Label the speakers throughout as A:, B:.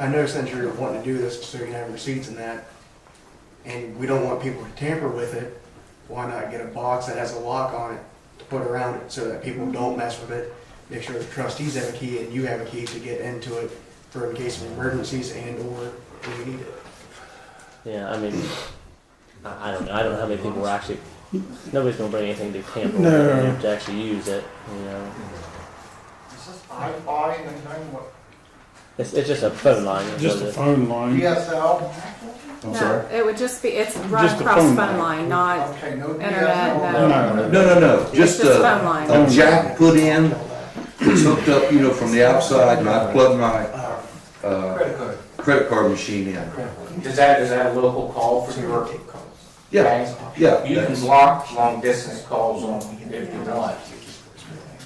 A: I know since you're wanting to do this, so you can have receipts and that, and we don't want people to tamper with it, why not get a box that has a lock on it to put around it so that people don't mess with it? Make sure the trustees have a key and you have a key to get into it for in case of emergencies and or when you need it.
B: Yeah, I mean, I, I don't know. I don't know how many people were actually. Nobody's gonna bring anything to camp
C: No.
B: to actually use it. You know,
D: Is this iFi and then what,
B: it's, it's just a phone line. that's
C: Just
B: what
C: a
B: it-
C: phone line.
D: DSL?
C: I'm
E: No,
C: sorry.
E: it would just be, it's right
C: Just a
E: across
C: phone line.
E: phone line, not,
D: Okay, no
E: Internet,
D: DSL?
B: no.
C: No,
F: No, no, no,
E: it's
F: just
E: just
F: a,
E: phone line.
F: a jack put in, it's hooked up, you know, from the outside, and I plug my, uh,
D: Credit card.
F: credit card machine in.
G: Is that, is that a local call for your
F: Yeah,
G: banks?
F: yeah,
G: You can
F: that's-
G: block long distance calls on if you want.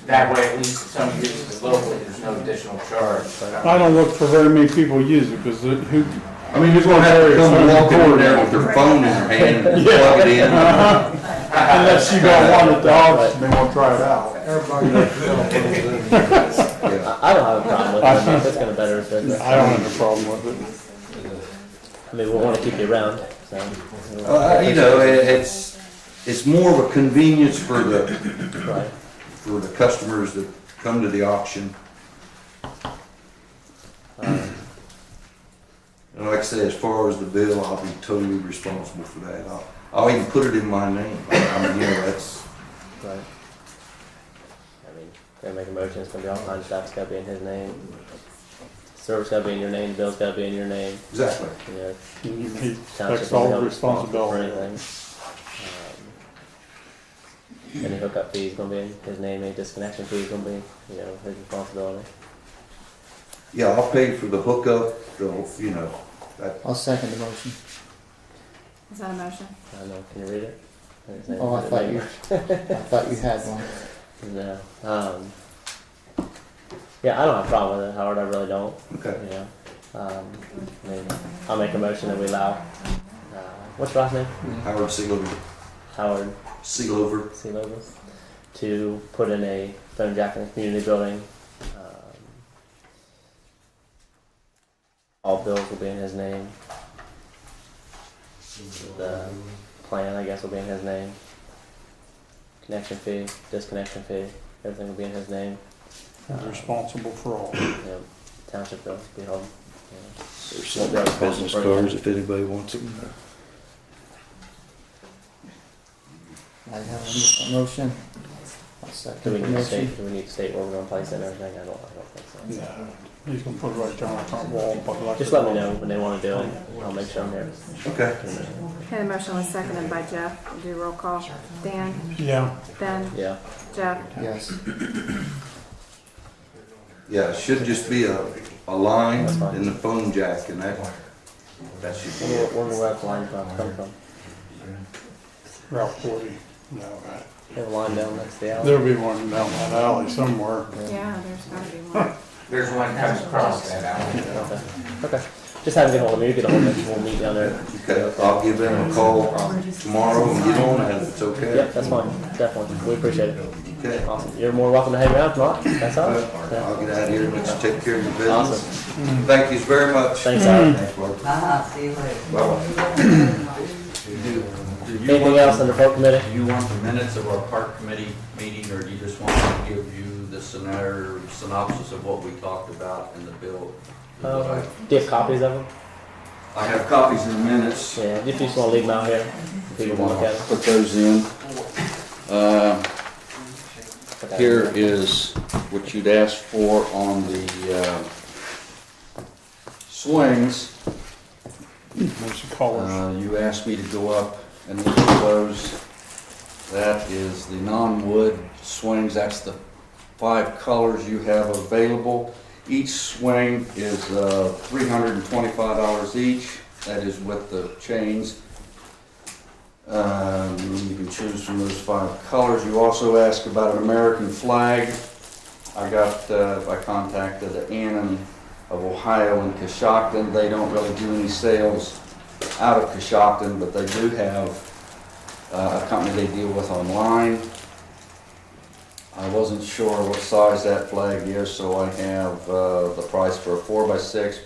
G: That way, at least if somebody uses it locally, there's no additional charge.
C: I don't look for very many people use it because who,
F: I mean, you're gonna have to come walk over there with their phone in their hand and plug it in.
C: unless you got one at the office and they want to try it out.
F: Yeah.
B: I, I don't have a problem with it. I mean, that's gonna better us. but-
C: I don't have a problem with
B: I mean, we'll want to keep you around. So.
F: Uh, you know, it- it's, it's more of a convenience for the,
B: Right.
F: for the customers that come to the auction. Uh,
B: Um,
F: And like I say, as far as the bill, I'll be totally responsible for that. I'll, I'll even put it in my name. I mean, you know, that's,
B: right. I mean, they make a motion. It's gonna be all kinds of stuff. It's gotta be in his name. Service gotta be in your name. Bill's gotta be in your name.
F: exactly.
B: You know,
C: it. You need
B: township
C: That's all
B: isn't responsible for
C: responsibility.
B: anything. Um, Any hookup fees gonna be in his name, any disconnection fees gonna be, you know, his responsibility.
F: Yeah, I'll pay for the hookup, the, you know, that,
H: I'll second the motion.
E: Is that a motion?
B: I don't know, can you read it? His name-
H: Oh, I
B: his
H: thought
B: name-
H: you, I thought you had one.
B: No, um, yeah, I don't have a problem with it, Howard, I really don't,
F: okay.
B: you know. Um, I mean, I'll make a motion that we allow, uh, what's your last name?
F: Howard Seelover,
B: Howard
F: Seelover,
B: sea level to put in a phone jack in the community building. Um, all bills will be in his name. The plan, I guess, will be in his name. Connection fee, disconnection fee, everything will be in his name.
C: He's responsible for all.
B: You know, township bill will be held. you
I: There's some other business cards if anybody wants them.
H: I have a motion. I'll
B: know. Do we
H: second the
B: need to
H: motion.
B: state? Do we need to state where we're going to place it and everything? I don't. I don't think so.
C: No, He's gonna put it right down on top wall, but like.
B: Just let me know when they want to do it. and I'll make sure I'm there.
F: okay.
E: Okay, the motion was seconded by Jeff. Do roll call. Dan,
C: Yeah,
E: Ben,
B: Yeah.
E: Jeff.
H: Yes,
F: Yeah, it should just be a, a line in the phone jack and that, that should be
B: Wonder,
F: it.
B: wonder where that line from come from.
C: Route forty, no, right.
B: They have a line down next to the alley.
C: there'll be one down that alley somewhere.
E: Yeah, there's gotta be one.
G: There's one comes across that alley.
B: Okay. Okay. Just have them get hold of me. You get a hold of me. We'll meet down there.
F: Okay, I'll give them a call tomorrow and get on it if it's
B: Yep,
F: okay.
B: that's fine. Definitely. We appreciate it.
F: Okay.
B: Awesome. You're more welcome to hang around tonight. That's all.
F: I'll
B: Yeah.
F: get out of here and let you take care of your
B: Awesome.
F: business. Thank you very much.
B: Thanks, Howard.
F: Thanks, Mark.
J: Ah, see you later.
B: Anything else under folk committee?
K: Do you want the minutes of our park committee meeting, or do you just want to give you the scenario, synopsis of what we talked about in the bill?
B: Uh, do you have copies of them?
F: I have copies in the minutes.
B: Yeah. If you just want to leave them out here, people want to look at them.
I: Put those in. Uh,
B: Okay.
I: Here is what you'd ask for on the uh, swings.
C: There's the colors.
I: Uh, You asked me to go up and look at those. That is the non-wood swings, that's the five colors you have available. Each swing is uh, $325 each, that is with the chains. Um, You can choose from those five colors. You also asked about an American flag. I got, uh, I contacted Annan of Ohio and Coshocton, they don't really do any sales out of Coshocton, but they do have uh, a company they deal with online. I wasn't sure what size that flag is, so I have uh, the price for a four by six